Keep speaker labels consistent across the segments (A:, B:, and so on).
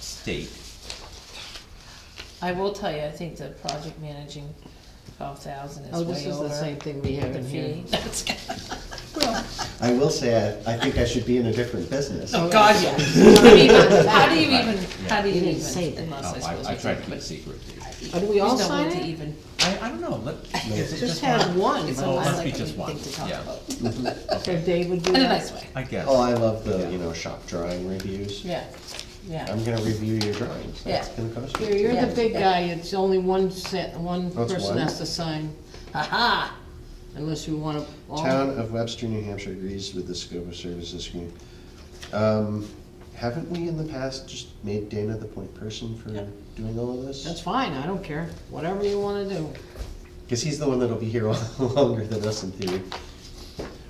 A: state.
B: I will tell you, I think the project managing twelve thousand is way
C: Oh,
B: over.
C: this is the same thing we have
B: the
C: in here.
B: fee. That's good.
D: I will say, I, I think I should be in a different business.
B: Oh, God, yeah. I mean, How do you even, how do
C: You
B: you
C: didn't say that.
B: even,
A: Oh,
B: unless I suppose
A: I, I
B: we
A: tried to
B: can,
A: keep it
B: but
A: secret. dude.
C: Uh, Do we all
B: there's no
C: sign
B: way to
C: it?
B: even,
A: I, I don't know, let, is it
C: Just
A: just
C: have
A: one?
C: one.
B: it's
A: Oh,
B: always
A: must be
B: like a
A: just one.
B: thing to talk
A: Yeah.
B: about,
C: So Dave would do
B: in a
C: that?
B: nice way,
A: I guess.
D: Oh, I love the, you know, shop drawing reviews.
B: yeah, yeah.
A: Um,
D: I'm gonna review your drawings, that's
B: Yeah.
D: gonna cost
C: Here,
D: me.
C: you're the
B: Yeah,
C: big
B: yeah.
C: guy, it's only one set, one
D: That's
C: person
D: Oh, one.
C: has to sign. Ha-ha! Unless you wanna, all,
D: Town of Webster, New Hampshire agrees with the scope of services agreement. Um, haven't we in the past just made Dana the point person for doing all of
C: that's
D: this?
C: fine, I don't care, whatever you wanna do.
D: Cause he's the one that'll be here longer than us in theory.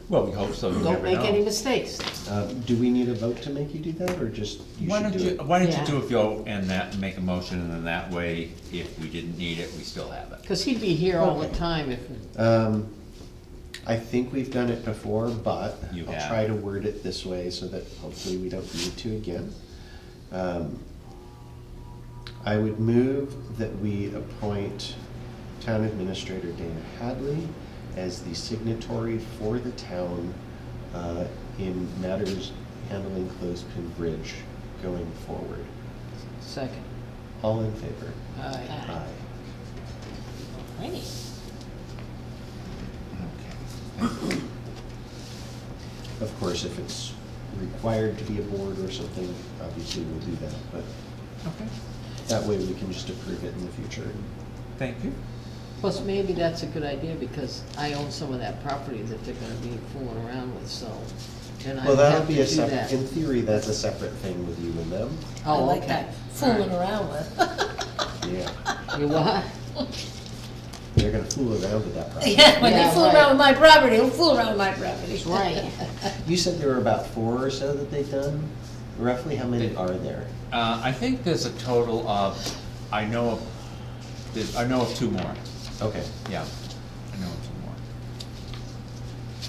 A: Well, we hope so, you never
C: Don't make any
A: know.
C: mistakes.
D: Um, do we need a vote to make you do that, or just you
A: Why
D: should
A: don't
D: do
A: you,
D: it?
A: why don't
C: Yeah.
A: you do a vote and that, make a motion, and then that way, if we didn't need it, we still have it.
C: Cause he'd be here all the time if,
D: Um, I think we've done it before, but
A: You
D: I'll
A: have.
D: try to word it this way so that hopefully we don't need to again. Um, I would move that we appoint Town Administrator Dana Hadley as the signatory for the town uh, in matters handling Clothespin Bridge going forward.
C: second.
D: All in favor?
C: Aye.
D: Aye.
B: Alrighty.
D: Okay. Of course, if it's required to be a board or something, obviously we'll do that, but
A: Okay.
D: that way we can just approve it in the future.
A: Thank you.
C: Plus, maybe that's a good idea, because I own some of that property that they're gonna be fooling around with, so, and I
D: Well, that'll
C: have to
D: be
C: do
D: a separate, in
C: that.
D: theory, that's a separate thing with you and them.
B: I
C: Oh,
B: like
C: okay.
B: that, fooling around with.
D: Yeah,
C: You what?
D: they're gonna fool around with that project.
B: Yeah, when they
C: Yeah,
B: fool
C: right.
B: around with my property, they'll fool around with my property.
C: That's right.
D: You said there were about four or so that they've done. Roughly, how many are there?
A: Uh, I think there's a total of, I know of, there's, I know of two more,
D: Okay,
A: yeah, I know of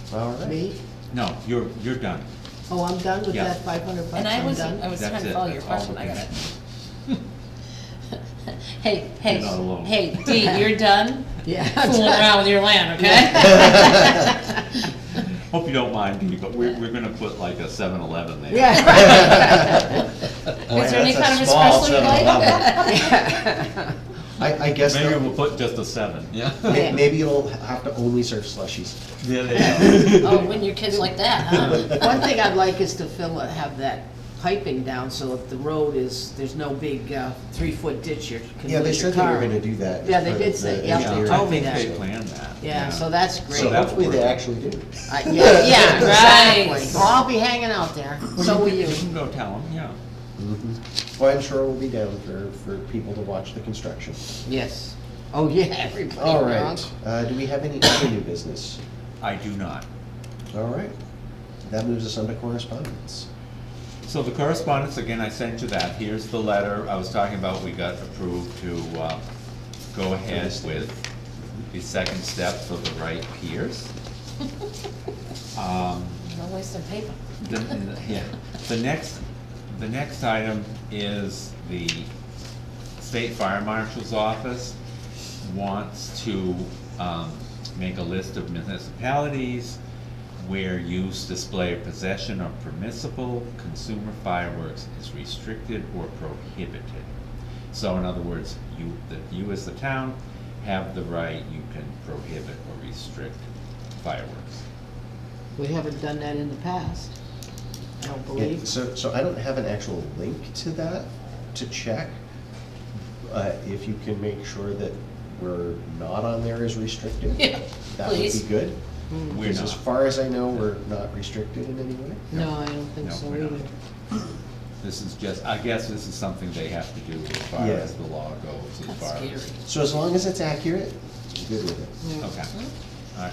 A: two more.
D: all right.
C: Me?
A: No, you're, you're done.
C: Oh, I'm done with
A: Yeah.
C: that five hundred bucks,
B: And I
C: I'm
B: was,
C: done.
B: I was
A: That's
B: trying to
A: it.
B: follow your
A: That's all
B: question,
A: we
B: I got
A: can-
B: it. Hey, hey,
A: You're not alone.
B: hey, Dee, you're done
C: Yeah. I'm
B: fooling
C: done.
B: around with your land, okay?
A: Hope you don't mind, Dee, but we're, we're gonna put like a 7-Eleven there.
C: Yeah.
B: Is there any
D: That's a
B: kind of
D: small
B: espresso you
D: 7-Eleven. I, I guess,
A: Maybe
D: they'll-
A: we'll put just a seven, yeah.
D: may- maybe it'll have to only serve slushies.
A: There they go.
B: Oh, when your kid's like that, huh?
C: One thing I'd like is to fill, it- have that piping down, so if the road is, there's no big, uh, three-foot ditch, you can
D: Yeah, they
C: lose your
D: said they were
C: car.
D: gonna do that. as
C: Yeah, they
D: part of
C: did say- yeah,
D: the
A: Yeah,
C: they
D: engineering.
A: I
C: told me
A: think
C: that.
A: they planned that.
C: Yeah, so that's great.
D: So
A: that-
D: hopefully they actually do.
C: I- Yeah, yeah,
B: Right.
C: exactly. Well, I'll be hanging out there,
A: Well,
C: so will
A: can-
C: you.
A: You can go tell them, yeah.
D: Mm-hmm. Well, I'm sure we'll be down for, for people to watch the construction.
C: Yes. Oh, yeah, everybody.
D: All
C: drunk.
D: right, uh, do we have any other new business?
A: I do not.
D: All right, that moves us on to correspondence.
A: So the correspondence, again, I sent you that, here's the letter I was talking about, we got approved to, uh, go ahead with the second step for the right peers. Um,
B: No waste of paper.
A: the, the- yeah, the next, the next item is the state fire marshal's office wants to, um, make a list of municipalities where use, display, or possession of permissible consumer fireworks is restricted or prohibited. So in other words, you, that you as the town have the right, you can prohibit or restrict fireworks.
C: We haven't done that in the past, I don't
D: Yeah,
C: believe.
D: So, so I don't have an actual link to that to check. Uh, if you can make sure that we're not on there as restricted,
B: Yeah,
D: that would
B: please.
D: be good.
C: Hmm.
A: We're
D: Because as
A: not.
D: far as I know, we're not restricted in any way.
C: No, I don't think
A: No,
C: so
A: we're not.
C: either.
A: This is just, I guess this is something they have to do as far
D: Yeah.
A: as the law goes, as
B: That's
A: far
B: scary.
A: as.
D: So as long as it's accurate, I'm good with it.
C: Yeah.
A: Okay,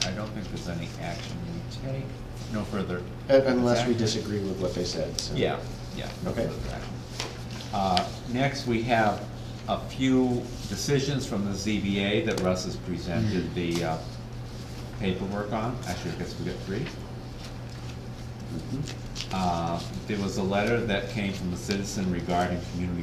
A: I, I don't think there's any action we take, no further.
D: Un- Uh, Unless we
A: Exactly.
D: disagree with what they said, so.
A: Yeah, yeah. no
D: Okay.
A: further action. Uh, Next, we have a few decisions from the ZBA that Russ has
D: Hmm.
A: presented the uh, paperwork on. Actually, I guess we got three.
D: Mm-hmm.
A: Uh, There was a letter that came from a citizen regarding community